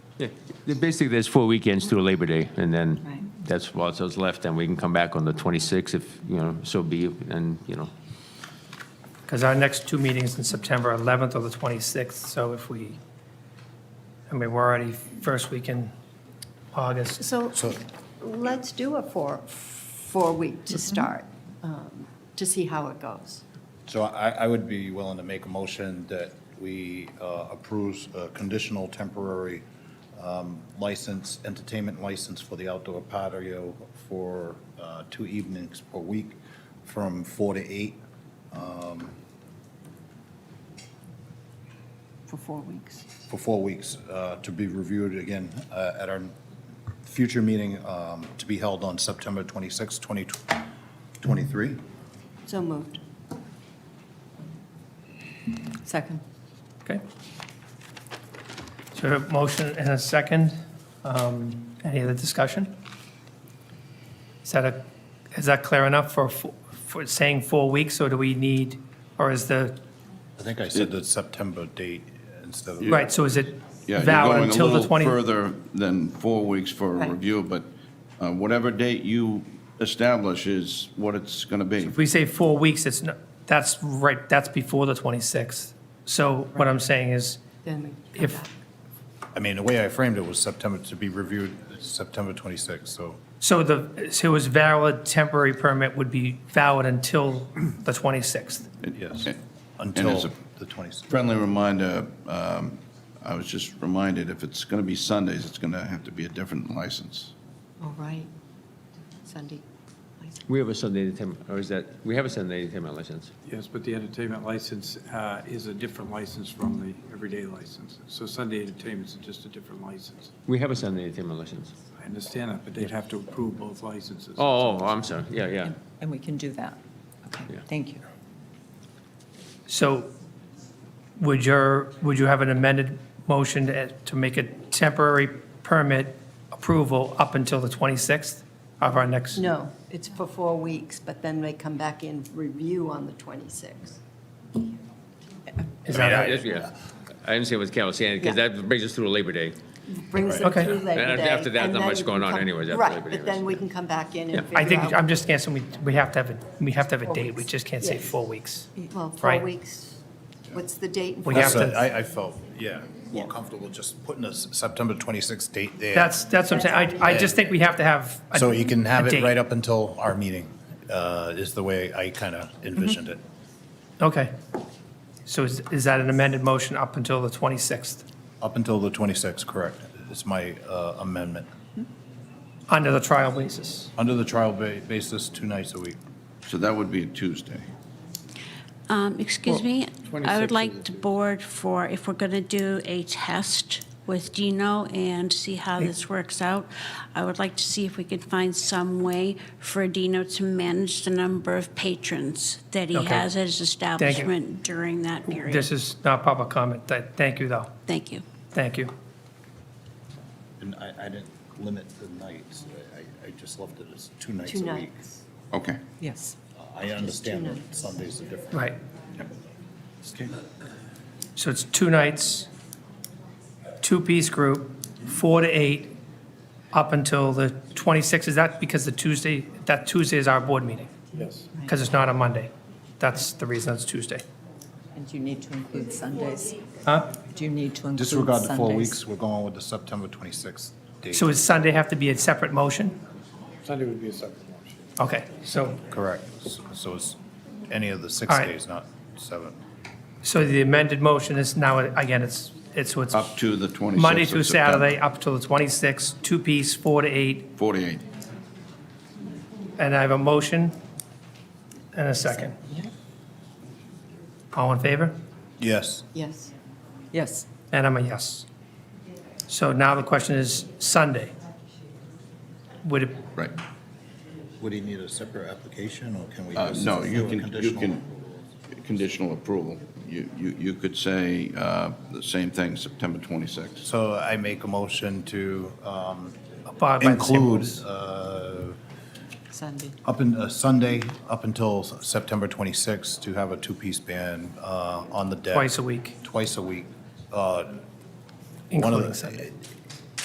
Yeah, Basically, there's four weekends through Labor Day, and Right. then that's what's what's left, and we can come back on the 26th if, you know, so be, it, and, you know, Because our next two meetings in September 11th or the 26th, so if we, I mean, we're already first week in August. So So- let's do a four, four-week to start, um, to see how it goes. So I, I would be willing to make a motion that we uh, approves a conditional temporary um, license, entertainment license for the outdoor patio for uh, two evenings per week from four to eight. For four weeks. for four weeks, uh, to be reviewed again uh, at our future meeting um, to be held on September 26, 2023. So moved. Second. Okay. So a motion and a second. Um, Any other discussion? Is that a, is that clear enough for, fo- for saying four weeks, or do we need, or is the, I think I said the September date instead of. right, so is it Yeah, you're valid going a until the little 20? further than four weeks for Right. a review, but uh, whatever date you establish is what it's going to be. If we say four weeks, it's, no- that's right, that's before the 26th. So what I'm saying is, Then we come If- back. I mean, the way I framed it was September, to be reviewed September 26, so. So the, so his valid temporary permit would be valid until the 26th? Yes. And- And Until as a the 26th. friendly reminder, um, I was just reminded, if it's going to be Sundays, it's going to have to be a different license. All right. Sunday. license. we have a Sunday entertainment, or is that, we have a Sunday entertainment license. Yes, but the entertainment license uh, is a different license from the everyday license. So Sunday entertainment's just a different license. We have a Sunday entertainment license. I understand that, but they'd have to approve both licenses. Oh, oh, I'm sorry, yeah, yeah. And we can do that. Okay, Yeah. thank you. So would your, would you have an amended motion to, to make a temporary permit approval up until the 26th of our next? No, it's for four weeks, but then they come back in review on the 26th. Is I that mean, I- right? yeah. I understand what Carol was saying, because Yeah. that brings us through Labor Day. Brings them Okay. through Labor And Day. after that, and not then much you going can on come- anyways after Labor Right, Day, but then right. we can come back in and figure I think, out- I'm just guessing, we, we have to have, a we have to have a Four date. We weeks. just can't say Yes. four weeks. Well, four Right. weeks. What's the date? in We four have So to- I, I felt, yeah, more comfortable just putting a S- September 26th date there. That's, that's what I'm saying. I, I just think we have to have. a- So you can have a it date. right up until our meeting, uh, is the way I kind of envisioned Mm-hmm. it. Okay. So is, is that an amended motion up until the 26th, Up until the 26th, correct, is my uh, amendment. under the trial basis? Under the trial ba- basis, two nights a week. So that would be a Tuesday. Um, Excuse me, I would like the board for, if we're going to do a test with Dino and see how this works out, I would like to see if we could find some way for Dino to manage the number of patrons that he Okay. has at his establishment during that period. This is not public comment. Th- Thank you, though. Thank you. Thank you. And I, I didn't limit the nights, I, I just left it as two nights Two a week. nights. Okay. Yes. I understand that Sundays are different. Right. So it's two nights, two-piece group, four to eight, up until the 26th. Is that because the Tuesday, that Tuesday is our board meeting? Yes. Because it's not a Monday. That's the reason it's Tuesday. And you need to include Sundays. Huh? Do you need to include Sundays? Disregard the four weeks, we're going with the September 26th date. So does Sunday have to be a separate motion? Sunday would be a separate motion. Okay, so, Correct. So- So it's any of the six All right. days, not seven. so the amended motion is now, again, it's, it's what's Up to the 26th. Monday of through September. Saturday, up till the 26th, two-piece, four to eight, 48. And I have a motion and a second. All in favor? Yes. Yes. Yes. And I'm a yes. So now the question is Sunday. Would it, Right. Would he need a separate application, or can we? Uh, just No, do you a can, you conditional? can, conditional approval. You, you, you could say uh, the same thing, September 26th. So I make a motion to um, abide by the same include rules? uh, Sunday. up in, uh, Sunday, up until September 26th, to have a two-piece band uh, on the deck. Twice a week, Twice a week. uh, one of including the- Sunday.